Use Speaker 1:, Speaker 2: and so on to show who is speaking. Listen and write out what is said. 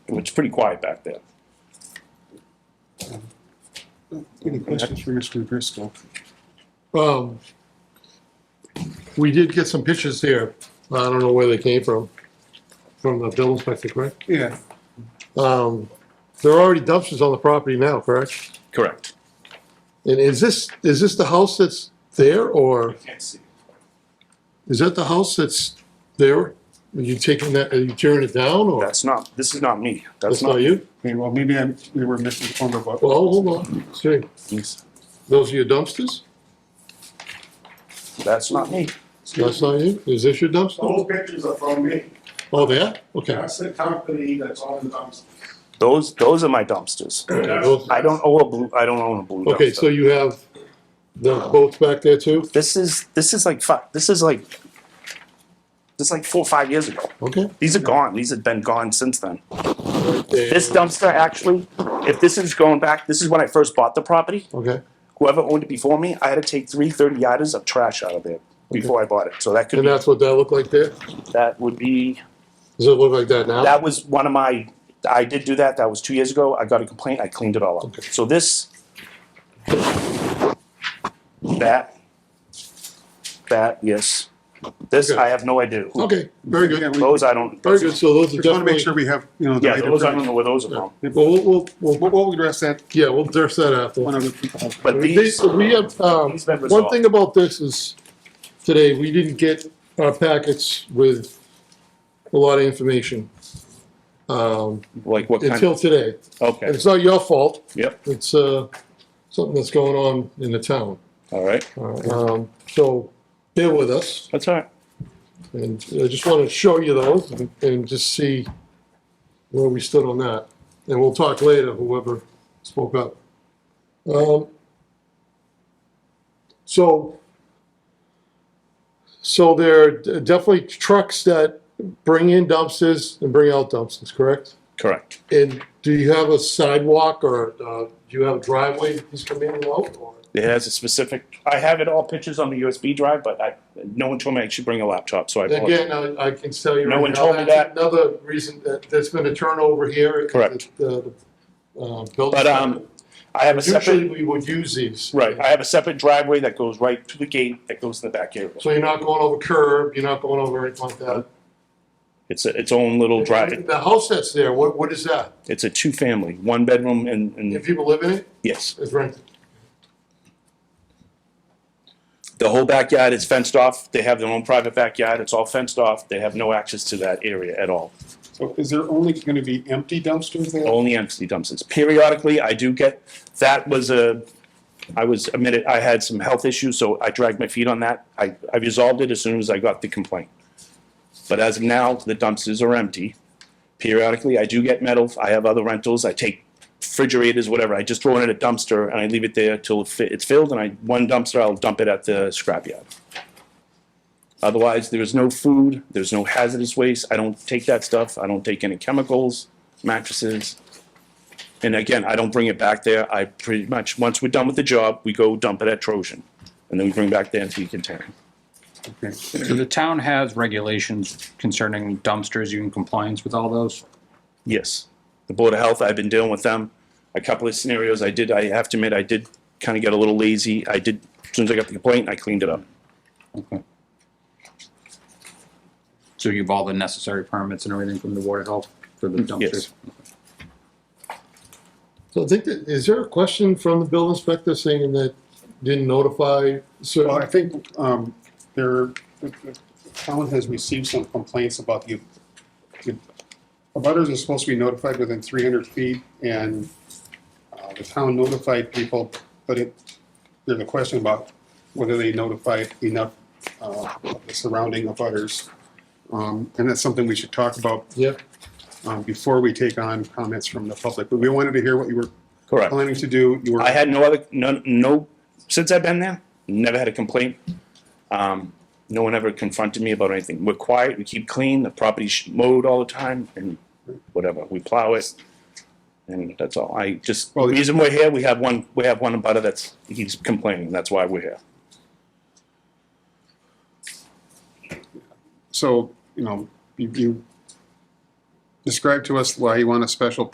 Speaker 1: pretty quiet back there.
Speaker 2: Any questions for Mr. Driscoll?
Speaker 3: Um, we did get some pictures here. I don't know where they came from, from the bill inspector, correct?
Speaker 2: Yeah,
Speaker 3: Um, there are already dumpsters on the property now, correct?
Speaker 1: Correct.
Speaker 3: And is this, is this the house that's there or is that the house that's there? Are you taking that, are you tearing it down or?
Speaker 1: That's not, this is not me.
Speaker 3: That's not you?
Speaker 2: okay, well, maybe I, we were misinformed about,
Speaker 3: Well, hold on, see, those are your dumpsters?
Speaker 1: That's not me.
Speaker 3: That's not you? Is this your dumpster?
Speaker 4: Those pictures are from me.
Speaker 3: Oh, there? Okay.
Speaker 4: That's the company that's on the dumpster.
Speaker 1: Those, those are my dumpsters.
Speaker 3: Those-
Speaker 1: I don't own a blue, I don't own a blue
Speaker 3: Okay, so
Speaker 1: dumpster.
Speaker 3: you have the boats back there too?
Speaker 1: This is, this is like fi, this is like, this is like four, or five years ago.
Speaker 3: Okay.
Speaker 1: These are gone. These have been gone since then. This
Speaker 3: This
Speaker 1: dumpster actually, if this is going back, this is when I first bought the property.
Speaker 3: Okay,
Speaker 1: Whoever owned it before me, I had to take three thirty yarders of trash out of there before I bought it. So that could
Speaker 3: and
Speaker 1: be,
Speaker 3: that's what that looked like there?
Speaker 1: that would be
Speaker 3: Does it look like that now?
Speaker 1: That was one of my, I did do that, that was two years ago, I got a complaint, I cleaned it all up. So this, that, that, yes, this, I have no idea. who-
Speaker 3: Okay, very
Speaker 2: yeah,
Speaker 3: good,
Speaker 2: we
Speaker 1: Those I don't,
Speaker 3: very good, so those are
Speaker 2: just want to make sure
Speaker 3: definitely,
Speaker 2: we have, you know. the
Speaker 1: yeah,
Speaker 2: right
Speaker 1: those, I don't
Speaker 2: information.
Speaker 1: know where those are from.
Speaker 3: well, we'll, we'll- we'll,
Speaker 2: We'll, we'll address that
Speaker 3: yeah, we'll address that after.
Speaker 2: one of the people.
Speaker 1: But
Speaker 3: They-
Speaker 1: these,
Speaker 3: We have, um,
Speaker 1: These members
Speaker 3: one
Speaker 1: are-
Speaker 3: thing about this is, today, we didn't get our packets with a lot of information. Um,
Speaker 1: like what kind of,
Speaker 3: until today, and
Speaker 1: okay,
Speaker 3: it's not your fault,
Speaker 1: yep,
Speaker 3: it's, uh, something that's going on in the town.
Speaker 1: all right,
Speaker 3: Um, so, bear with us.
Speaker 1: that's all right.
Speaker 3: And I just want to show you those and- and just see where we stood on that. And we'll talk later, whoever spoke up. Um, So, so there are definitely trucks that bring in dumpsters and bring out dumpsters, correct?
Speaker 1: Correct.
Speaker 3: And do you have a sidewalk or uh, do you have a driveway that these come in and out? or-
Speaker 1: It has a specific, I have it all pictures on the USB drive, but I, no one told me I should bring a laptop, so I apologize.
Speaker 3: Again, I, I can tell you.
Speaker 1: No
Speaker 3: right
Speaker 1: one
Speaker 3: now,
Speaker 1: told me
Speaker 3: that's
Speaker 1: that.
Speaker 3: Another reason that there's been a turnover here. at
Speaker 1: Correct.
Speaker 3: the- the, uh, building.
Speaker 1: But, um, I have a
Speaker 3: Usually
Speaker 1: separate,
Speaker 3: we would use these.
Speaker 1: right, I have a separate driveway that goes right to the gate that goes in the back area.
Speaker 3: So you're not going over curb, you're not going over anything like that.
Speaker 1: It's a, its own little drive.
Speaker 3: The house that's there, what, what is that?
Speaker 1: It's a two-family, one bedroom and,
Speaker 3: If
Speaker 1: and,
Speaker 3: people live in it,
Speaker 1: yes.
Speaker 3: it's rented.
Speaker 1: The whole backyard is fenced off. They have their own private backyard. It's all fenced off. They have no access to that area at all.
Speaker 2: So is there only going to be empty dumpsters there?
Speaker 1: Only empty dumpsters. Periodically, I do get, that was a, I was admitted, I had some health issues, so I dragged my feet on that. I, I resolved it as soon as I got the complaint. But as of now, the dumpsters are empty. Periodically, I do get metal. I have other rentals. I take refrigerators, whatever. I just throw it in a dumpster and I leave it there till it fi- it's filled. And I, one dumpster, I'll dump it at the scrapyard. Otherwise, there is no food. There's no hazardous waste. I don't take that stuff. I don't take any chemicals, mattresses. And again, I don't bring it back there. I pretty much, once we're done with the job, we go dump it at Trojan. And then we bring back the empty container.
Speaker 5: So the town has regulations concerning dumpsters, you in compliance with all those?
Speaker 1: Yes. The Board of Health, I've been dealing with them. A couple of scenarios I did, I have to admit, I did kind of get a little lazy. I did, as soon as I got the complaint, I cleaned it up.
Speaker 5: Okay. So you have all the necessary permits and everything from the water health for the dumpsters?
Speaker 3: So I think that, is there a question from the building inspector saying that didn't notify
Speaker 2: Well, I
Speaker 3: certain?
Speaker 2: think um, there, the the town has received some complaints about the, the abutters are supposed to be notified within 300 feet, and uh, the town notified people, but it, there's a question about whether they notified enough uh, of the surrounding abutters. Um, And that's something we should talk about
Speaker 3: Yeah,
Speaker 2: um, before we take on comments from the public. But we wanted to hear what you were
Speaker 1: Correct.
Speaker 2: planning to do. You were
Speaker 1: I had no other, no, no, since I've been there, never had a complaint. Um, no one ever confronted me about anything. We're quiet, we keep clean, the property's mowed all the time and whatever, we plow it. And that's all. I just, the
Speaker 2: Well,
Speaker 1: reason we're here, we have one, we have one abutter that's, he's complaining, that's why we're here.
Speaker 2: So, you know, you- you described to us why you want a special